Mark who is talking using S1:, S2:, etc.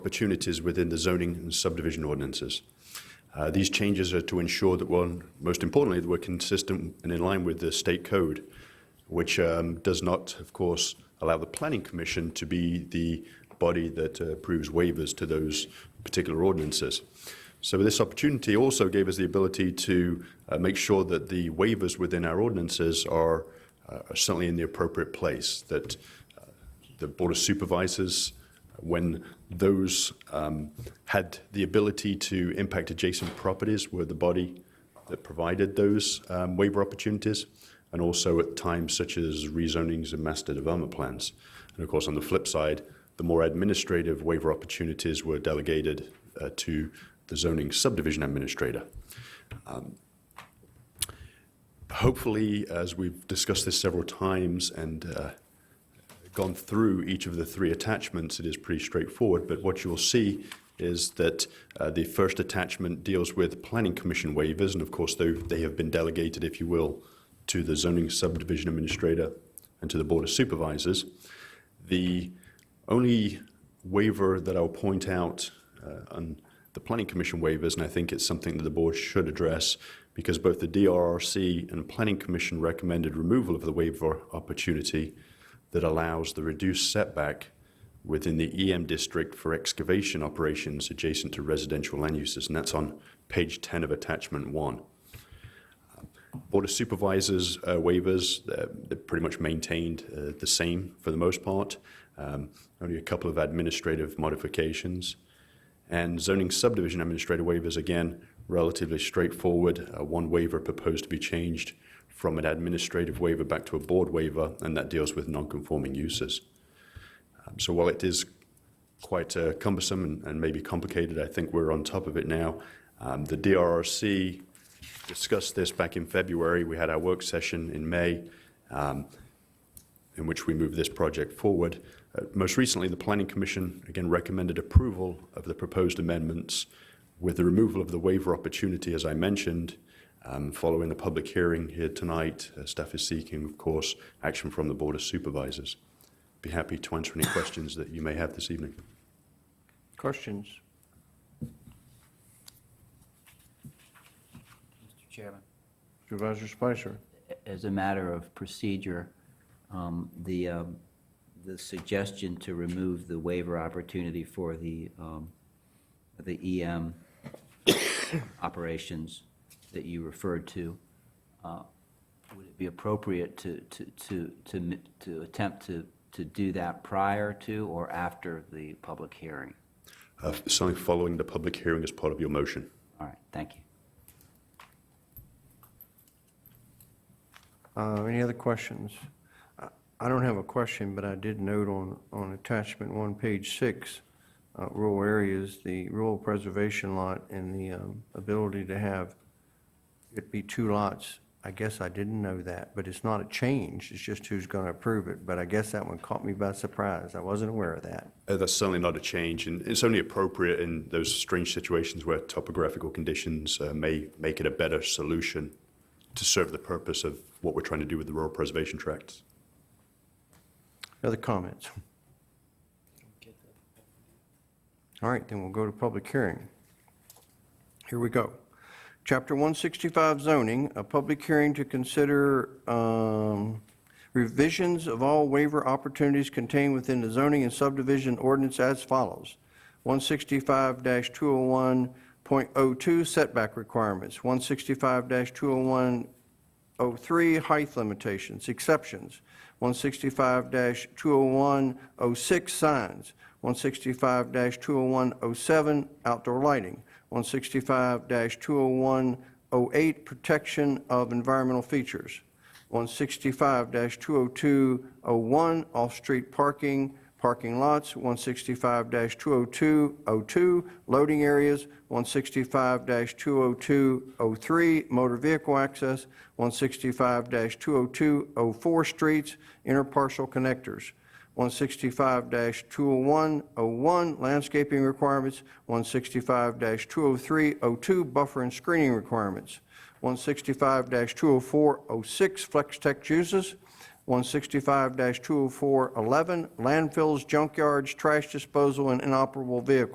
S1: opportunities within the zoning and subdivision ordinances. Uh, These changes are to ensure that, one, most importantly, that we're consistent and in line with the state code, which um, does not, of course, allow the Planning Commission to be the body that uh, approves waivers to those particular ordinances. So this opportunity also gave us the ability to uh, make sure that the waivers within our ordinances are uh, are certainly in the appropriate place, that uh, the Board of Supervisors, when those um, had the ability to impact adjacent properties, were the body that provided those um, waiver opportunities, and also at times such as rezonings and master development plans. And of course, on the flip side, the more administrative waiver opportunities were delegated uh, to the zoning subdivision administrator. Um, Hopefully, as we've discussed this several times and uh, gone through each of the three attachments, it is pretty straightforward. But what you'll see is that uh, the first attachment deals with planning commission waivers, and of course, they, they have been delegated, if you will, to the zoning subdivision administrator and to the board of supervisors. The only waiver that I'll point out uh, on the planning commission waivers, and I think it's something that the board should address because both the DRRC and planning commission recommended removal of the waiver opportunity that allows the reduced setback within the EM district for excavation operations adjacent to residential land uses, and that's on page 10 of attachment one. Board of Supervisors uh, waivers, they're, they're pretty much maintained uh, the same for the most part, um, only a couple of administrative modifications. And zoning subdivision administrator waivers, again, relatively straightforward. Uh, one waiver proposed to be changed from an administrative waiver back to a board waiver, and that deals with non-conforming uses. Um, so while it is quite uh, cumbersome and, and maybe complicated, I think we're on top of it now. Um, the DRRC discussed this back in February. We had our work session in May um, in which we move this project forward. Uh, Most recently, the Planning Commission again recommended approval of the proposed amendments with the removal of the waiver opportunity, as I mentioned. Um, Following the public hearing here tonight, uh, staff is seeking, of course, action from the Board of Supervisors. Be happy to answer any questions that you may have this evening.
S2: Questions?
S3: Mr. Chairman.
S2: Supervisor Spicer?
S3: As a matter of procedure, um, the, um, the suggestion to remove the waiver opportunity for the, um, the EM operations that you referred to, uh, would it be appropriate to, to, to, to m- to attempt to, to do that prior to or after the public hearing?
S1: Uh, Something following the public hearing as part of your motion.
S3: All right, thank you.
S2: Uh, Any other questions? I- I don't have a question, but I did note on, on attachment one, page six, uh, rural areas, the rural preservation lot and the um, ability to have it be two lots. I guess I didn't know that, but it's not a change, it's just who's going to approve it. But I guess that one caught me by surprise, I wasn't aware of that.
S1: Uh, That's certainly not a change, and it's only appropriate in those strange situations where topographical conditions uh, may make it a better solution to serve the purpose of what we're trying to do with the rural preservation tracts.
S2: Other comments? All right, then we'll go to public hearing. Here we go. Chapter 165 zoning, a public hearing to consider um, revisions of all waiver opportunities contained within the zoning and subdivision ordinance as follows. 165-201.02 setback requirements, 165-201 03, height limitations, exceptions, 165-20106, signs, 165-20107, outdoor lighting, 165-20108, protection of environmental features, 165-20201, off-street parking, parking lots, 165-20202, loading areas, 165-20203, motor vehicle access, 165-20204, streets, interparcel connectors, 165-20101, landscaping requirements, 165-20302, buffer and screening requirements, 165-20406, flex tech uses, 165-20411, landfills, junkyards, trash disposal, and inoperable vehicles.